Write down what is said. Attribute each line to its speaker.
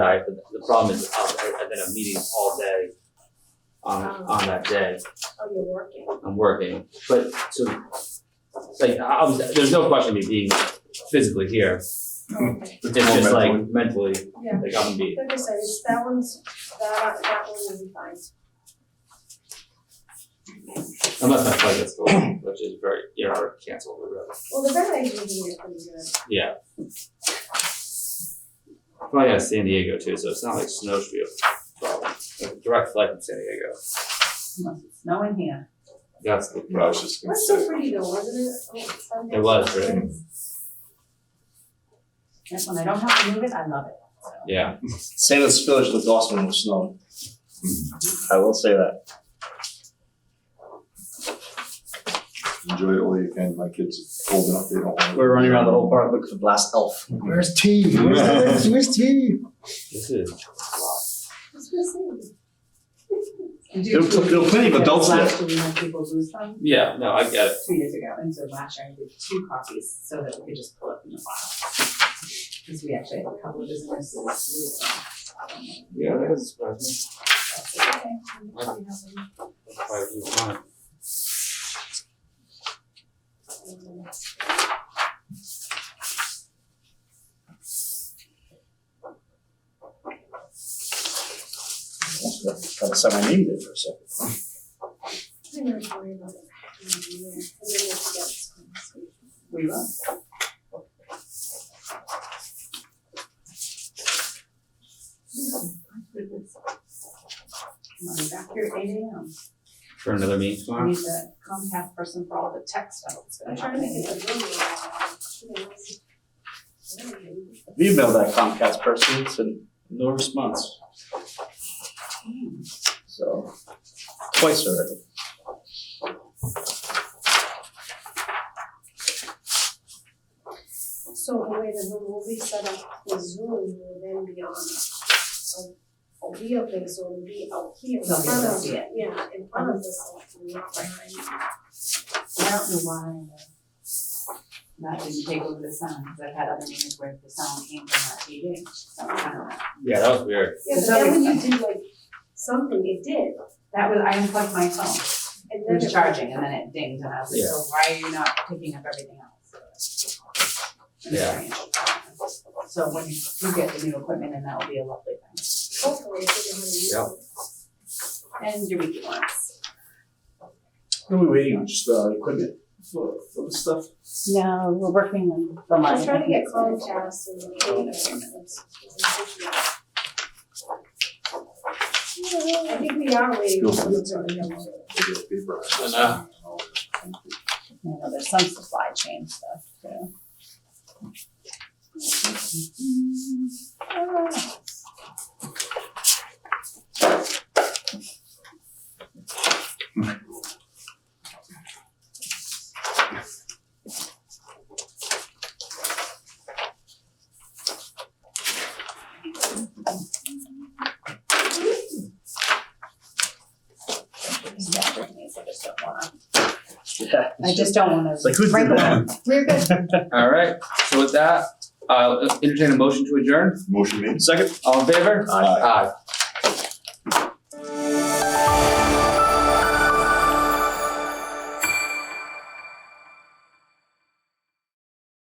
Speaker 1: Sorry, but the problem is, I've, I've been at meetings all day on, on that day.
Speaker 2: Oh, you're working.
Speaker 1: I'm working, but so, like, I I was, there's no question of me being physically here. It's just like mentally,
Speaker 2: Yeah.
Speaker 1: like I'm beat.
Speaker 2: Like I said, it's that one's, that, that one will be fine.
Speaker 1: Unless my flight gets delayed, which is very, you know, or canceled or whatever.
Speaker 2: Well, the red light meeting is pretty good.
Speaker 1: Yeah. Probably out of San Diego too, so it's not like snow should be a problem. Like, Direct flight from San Diego.
Speaker 3: Unless it's snowing here.
Speaker 1: That's the
Speaker 4: I
Speaker 1: problem.
Speaker 4: was just
Speaker 2: It
Speaker 4: gonna
Speaker 2: was so
Speaker 4: say,
Speaker 2: pretty though, wasn't it? Oh, it's Sunday.
Speaker 1: It was, right?
Speaker 3: That's when I don't have to move it, I love it.
Speaker 1: Yeah.
Speaker 4: St. Louis Village looked awesome when it was snowing. I will say that.
Speaker 5: Enjoy it all you can. My kids are old enough; they don't. want to-
Speaker 4: We were running around the whole park looking for Blast Elf.
Speaker 6: Where's T? Where's, where's T?
Speaker 1: This is.
Speaker 2: It's just saying.
Speaker 3: And
Speaker 4: There were pl- there were plenty of adults there.
Speaker 3: Last year, we had people do some,
Speaker 1: Yeah, no, I get it.
Speaker 3: two years ago, and so last year I did two copies so that we could just pull up in the file. Because we actually have a couple of businesses. that lose them.
Speaker 1: Yeah, that doesn't surprise
Speaker 2: Okay. I'm
Speaker 1: me. Why would you want it?
Speaker 2: happy.
Speaker 4: Kind of said my name there for a second.
Speaker 2: I'm not worried about it. Yeah, I'm gonna get this conversation.
Speaker 3: We will. I'll be Hmm. back here at eight AM.
Speaker 1: For another meeting
Speaker 3: I
Speaker 1: tomorrow?
Speaker 3: need the Comcast person for all the tech stuff that's
Speaker 2: I'm
Speaker 3: gonna
Speaker 2: trying to
Speaker 3: happen.
Speaker 2: get the room around.
Speaker 4: We emailed that Comcast person, it's a no response. So, twice already.
Speaker 2: So the way the room will be set up with Zoom will then be on a, a wheel thing, so it'll be out here in
Speaker 3: They'll be able
Speaker 2: front
Speaker 3: to
Speaker 2: of,
Speaker 3: see it.
Speaker 2: yeah, in front of the selectmen, not behind.
Speaker 3: I don't know why uh, that didn't take over the sound, because I've had other meetings where the sound came from that TV. So I don't know.
Speaker 1: Yeah, that was weird.
Speaker 2: Yeah, but then when you did like something, it did,
Speaker 3: That was, I unplugged my phone,
Speaker 2: and
Speaker 3: it
Speaker 2: then
Speaker 3: was
Speaker 2: it.
Speaker 3: charging, and then it dinged, and I was like,
Speaker 1: Yeah.
Speaker 3: so why are you not picking up everything else? It's
Speaker 1: Yeah.
Speaker 3: strange. So when you you get the new equipment, and that will be a lovely thing.
Speaker 2: Hopefully, it didn't really use
Speaker 1: Yeah.
Speaker 2: it.
Speaker 3: And your weekly ones.
Speaker 4: Who are we waiting on? Just uh, equipment for, for the stuff?
Speaker 3: No, we're working on the
Speaker 2: I'm trying to get Comcast and.
Speaker 3: Oh.
Speaker 2: I think we are waiting for them to come.
Speaker 5: They get paper.
Speaker 1: I know.
Speaker 3: you know, there's some supply chain stuff too. Staffing needs, I just don't wanna
Speaker 4: Yeah.
Speaker 3: I just don't wanna.
Speaker 4: It's like, who did
Speaker 3: break
Speaker 4: that?
Speaker 3: the law. We're good.
Speaker 1: All right, so with that, I'll entertain a motion to adjourn.
Speaker 5: Motion made.
Speaker 4: Second?
Speaker 1: All in favor?
Speaker 4: Aye.
Speaker 1: Aye.